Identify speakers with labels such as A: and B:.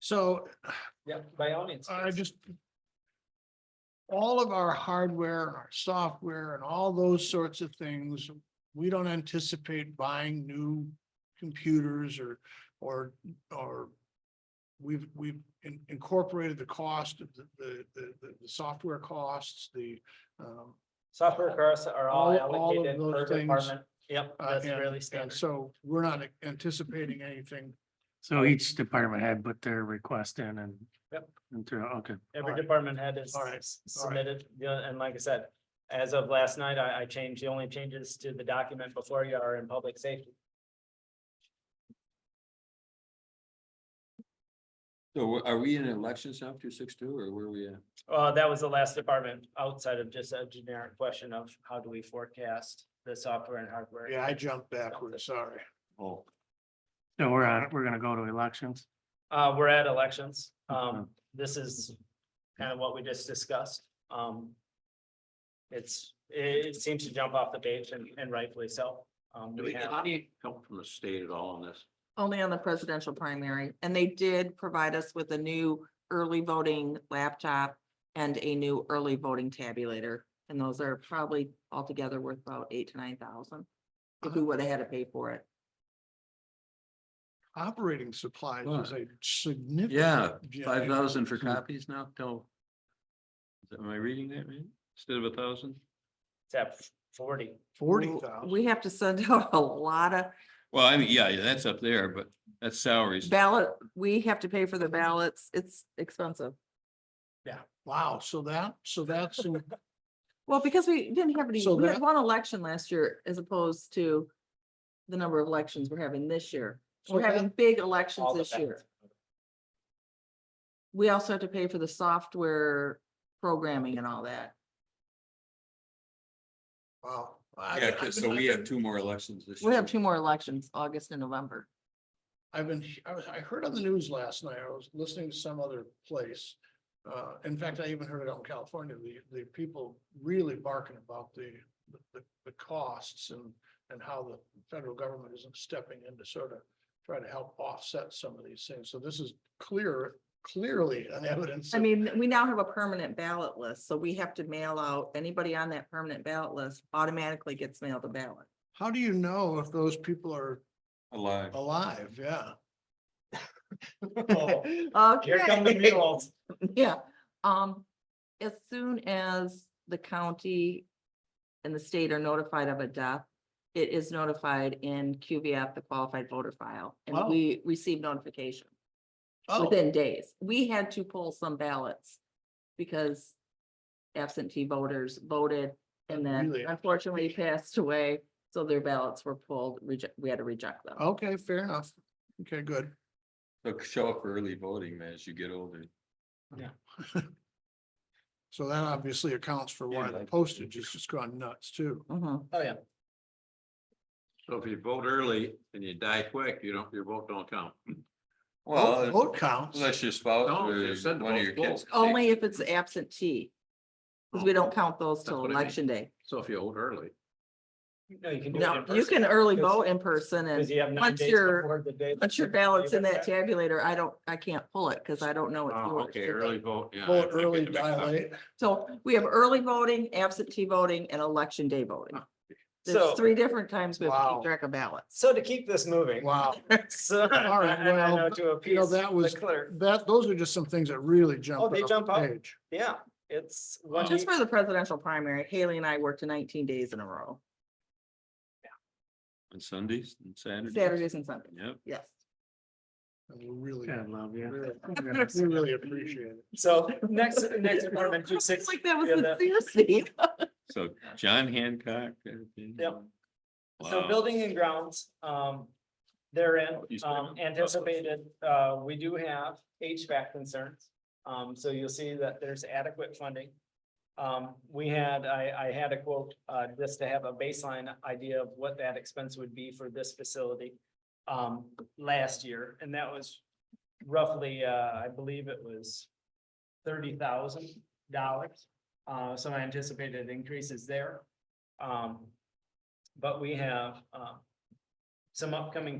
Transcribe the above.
A: So uh,
B: Yeah, by all means.
A: I just. All of our hardware, our software and all those sorts of things, we don't anticipate buying new computers or, or, or. We've, we've in- incorporated the cost of the, the, the, the- the software costs, the, um.
B: Software costs are all
A: All- all of
B: allocated
A: those
B: per
A: things.
B: department. Yep,
A: uh,
B: that's
A: and-
B: really
A: And
B: standard.
A: so we're not anticipating anything.
C: So each department had put their request in and.
B: Yep.
C: And through, okay,
B: Every
A: alright.
B: department head is
A: Alright,
B: s- submitted, yeah, and like I said, as of last night, I, I changed, the only changes to the document before you are in public safety.
D: So are we in elections after six two or where are we at?
B: Uh, that was the last department outside of just a generic question of how do we forecast the software and hardware.
A: Yeah, I jumped backwards, sorry.
D: Oh,
C: so we're on, we're gonna go to elections.
B: Uh, we're at elections. Um,
C: Okay.
B: this is kind of what we just discussed. Um. It's, it, it seems to jump off the page and, and rightfully so. Um,
D: do
B: we
D: we get
B: have,
D: any help from the state at all on this?
E: Only on the presidential primary, and they did provide us with a new early voting laptop and a new early voting tabulator, and those are probably altogether worth about eight to nine thousand. If we would have had to pay for it.
A: Operating supplies is a significant.
D: Yeah,
A: Yeah,
D: five
A: I-
D: thousand for copies now, no. Is that- Am I reading that right? Instead of a thousand?
B: tap forty.
A: Forty
E: W-
A: thousand.
E: We have to send out a lot of
D: Well, I mean, yeah, yeah, that's up there, but that's salaries.
E: ballot, we have to pay for the ballots, it's expensive.
A: Wow, so that, so that's, in-
E: Well, because we didn't have any,
A: So
E: we
A: that-
E: had one election last year as opposed to the number of elections we're having this year.
A: So
E: We're
A: that-
E: having big
B: all
E: elections
B: the
E: this year.
B: ballots.
E: We also have to pay for the software programming and all that.
A: wow. I-
D: Yeah,
A: I've
D: 'cause-
A: been-
D: so
A: I've
D: we have
A: been-
D: two more elections this year.
E: We have two more elections, August and November.
A: I've been, I was, I heard on the news last night, I was listening to some other place. Uh, in fact, I even heard it out in California, the, the people really barking about the, the, the costs and. And how the federal government isn't stepping in to sort of try to help offset some of these things. So this is clear, clearly an evidence.
E: I
A: of-
E: mean, we now have a permanent ballot list, so we have to mail out, anybody on that permanent ballot list automatically gets mailed a ballot.
A: How do you know if those people are
D: Alive.
A: alive? Yeah.
B: Oh, Here come the
E: Okay.
B: mules.
E: Yeah, um, as soon as the county and the state are notified of a death, it is notified in QVF, the qualified voter file,
A: Wow.
E: and we receive notification
A: Oh,
E: within days. We had to pull some ballots because absentee voters voted and then
A: Really?
E: unfortunately passed away, so their ballots were pulled, reject, we had to reject them.
A: okay, fair enough. Okay, good.
D: So show up for early voting man, as you get older.
A: So that obviously accounts for why
D: Yeah,
A: the
D: like-
A: postage has just gone nuts too.
E: Mhm.
B: Oh, yeah.
D: So if you vote early and you die quick, you don't, your vote don't count.
A: Vote
D: Well,
A: vote counts.
D: unless your spouse
F: No,
D: or
F: they said
D: one of your
F: both
D: kids.
E: Only if it's absentee, because we don't count those till
F: what I mean.
E: election day.
F: So if you vote early,
B: No, you can do it in
E: No, you
B: person,
E: can early
B: 'cause-
E: vote in person
B: 'cause
E: and
B: you have nine
E: once
B: days
E: you're-
B: before the day-
E: once your ballot's in that
B: Yeah.
E: tabulator, I don't, I can't pull it because I don't know. it's
F: oh,
E: yours.
F: okay, early vote, yeah. I
A: Vote
F: think it
A: early,
F: makes sense.
A: dilate.
E: So we have early voting, absentee voting and election day voting.
B: So-
E: There's three different times we have to
A: Wow.
E: keep track of ballots.
B: So to keep this moving.
A: Wow.
B: So, and
A: All right,
B: I
A: well,
B: know to
A: you know,
B: appease
A: that was-
B: the clerk,
A: That, those are just some things that really jump.
B: Oh, they
A: off
B: jump
A: the
B: out.
A: page.
B: yeah, it's. one
E: Just
B: week-
E: for the presidential primary, Haley and I worked nineteen days in a row,
D: On Sundays and Saturdays.
E: Saturdays and Sundays.
D: Yep.
E: Yes.
A: And we really,
C: God love you.
A: really- we really appreciate it.
B: So next, next department, two
E: It's
B: six.
E: Like that was
B: yeah, that-
E: sincere, Steve.
D: So John Hancock. everything.
B: Yep. So
D: Wow.
B: building and grounds, um, therein,
D: You said-
B: um, anticipated, uh, we do have HVAC concerns. Um, so you'll see that there's adequate funding. Um, we had, I, I had a quote, uh, just to have a baseline idea of what that expense would be for this facility. Um, last year, and that was roughly, uh, I believe it was thirty thousand dollars. Uh, so I anticipated increases there. Um, but we have, um, uh, some upcoming